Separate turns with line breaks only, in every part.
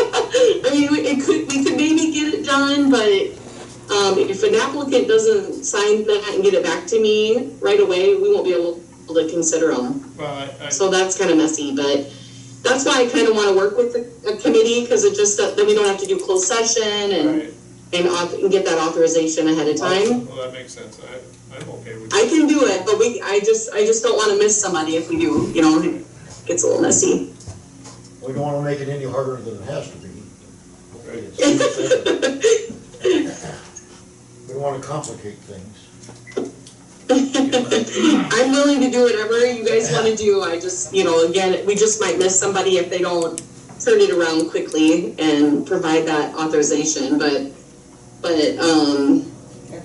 them, but um, if an applicant doesn't sign that and get it back to me right away, we won't be able to consider them.
Well, I, I,
So that's kind of messy, but that's why I kind of want to work with the a committee because it just, that we don't have to do closed session and,
right,
and auth- and get that authorization ahead of time.
well, that makes sense, I, I'm okay with
I
that.
can do it, but we, I just, I just don't want to miss somebody if we do, you know, it gets a little messy.
We don't wanna make it any harder than it has to be. We don't wanna complicate things.
I'm willing to do whatever you guys want to do. I just, you know, again, we just might miss somebody if they don't turn it around quickly and provide that authorization, but, but, um,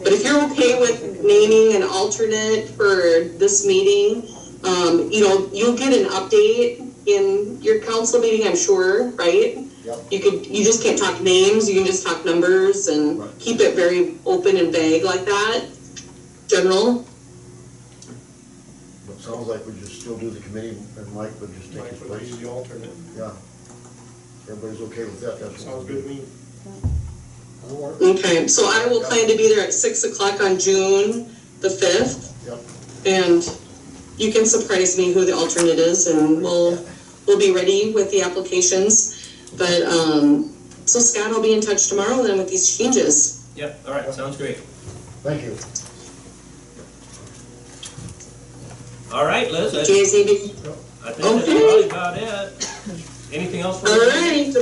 but if you're okay with naming an alternate for this meeting, um, you know, you'll get an update in your council meeting, I'm sure, right?
Yep.
You could, you just can't talk names, you can just talk numbers and
Right.
keep it very open and vague like that, general.
But it sounds like we just still do the committee and Mike would just take
Mike
his
would be
place.
the alternate,
Yeah. Everybody's okay with that, that's what.
sounds good to me.
That'll work.
Okay, so I will plan to be there at six o'clock on June the fifth,
Yep.
and you can surprise me who the alternate is, and we'll, we'll be ready with the applications. But, um, so Scott will be in touch tomorrow then with these changes.
Yep, all right, sounds great.
Thank you.
All right, Liz, I
Do you guys need to,
I think that's
Okay.
probably about it. Anything else for
all
us?
right,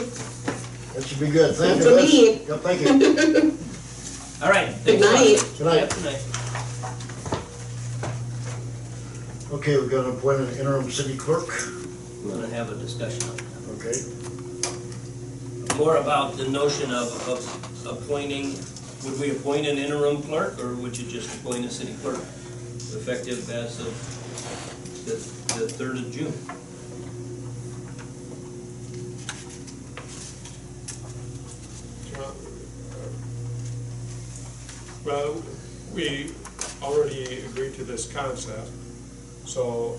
That should be good, thank you.
For me.
Yep, thank you.
All right.
good
thanks a lot.
night.
Good night.
Yep, Good night.
Okay, we've got to appoint an interim city clerk,
We're gonna have a discussion on
okay?
that. More about the notion of, of appointing, would we appoint an interim clerk, or would you just appoint a city clerk? Effective as of the, the third of June.
Well, Well, we already agreed to this concept, so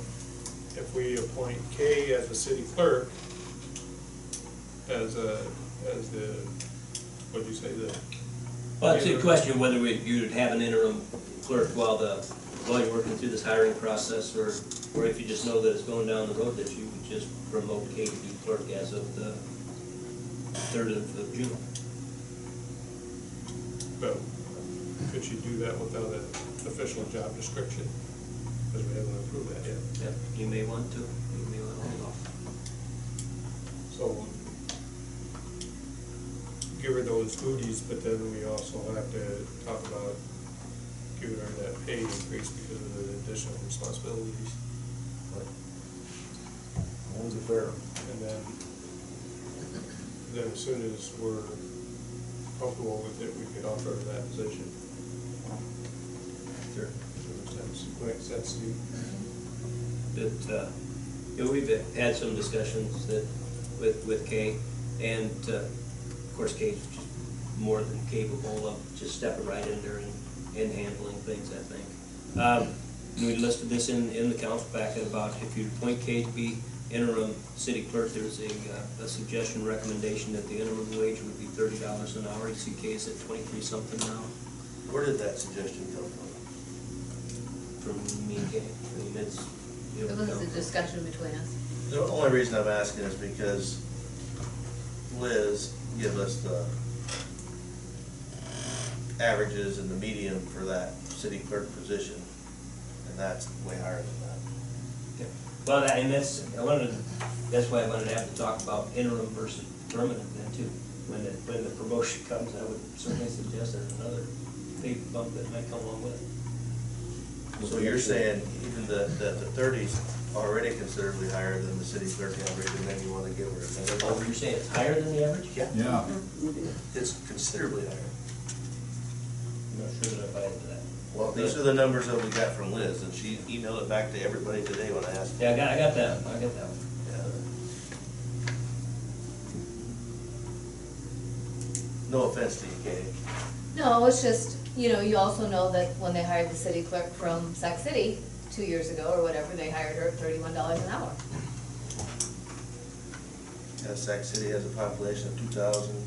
if we appoint Kay as the city clerk, as a, as the, what'd you say, the,
Well, it's a question whether we, you'd have an interim clerk while the, while you're working through this hiring process, or, or if you just know that it's going down the road, that you would just promote Kate to be clerk as of the third of of June.
but could she do that without an official job description? Because we haven't approved that yet.
Yep, you may want to, you may want to hold off.
So give her those duties, but then we also have to talk about giving her that pay increase because of the additional responsibilities.
Only fair.
And then, then as soon as we're comfortable with it, we could offer her that position.
Sure.
Does that make sense to you?
But, uh, you know, we've had some discussions that, with, with Kay, and, uh, of course, Kay's just more than capable of just stepping right in there and, and handling things, I think. Um, we listed this in, in the council packet about if you appoint Kay to be interim city clerk, there's a, uh, a suggestion, recommendation that the interim wage would be thirty dollars an hour, you see Kay's at twenty-three something now,
Where did that suggestion come from?
from me and Kay, I mean, it's, you
It
know.
was a discussion between us.
The only reason I'm asking is because Liz gave us the averages and the median for that city clerk position, and that's way higher than that.
Yeah. Well, that, and that's, I wanted, to- that's why I wanted to have to talk about interim versus permanent then too. When the, when the promotion comes, I would certainly suggest there's another big bump that might come along with it.
So you're saying even the, that the thirties already considerably higher than the city clerk average, and then you wanna give her another
Oh,
one?
you're saying it's higher than the average?
Yeah,
Yeah,
it's considerably higher.
I'm not sure that I buy into that.
Well, these are the numbers that we got from Liz, and she emailed it back to everybody today when I asked.
Yeah, I got, I got that, I got that one.
No offense to you, Katie.
No, it's just, you know, you also know that when they hired the city clerk from Sac City two years ago or whatever, they hired her at thirty-one dollars an hour.
Uh, Sac City has a population of two thousand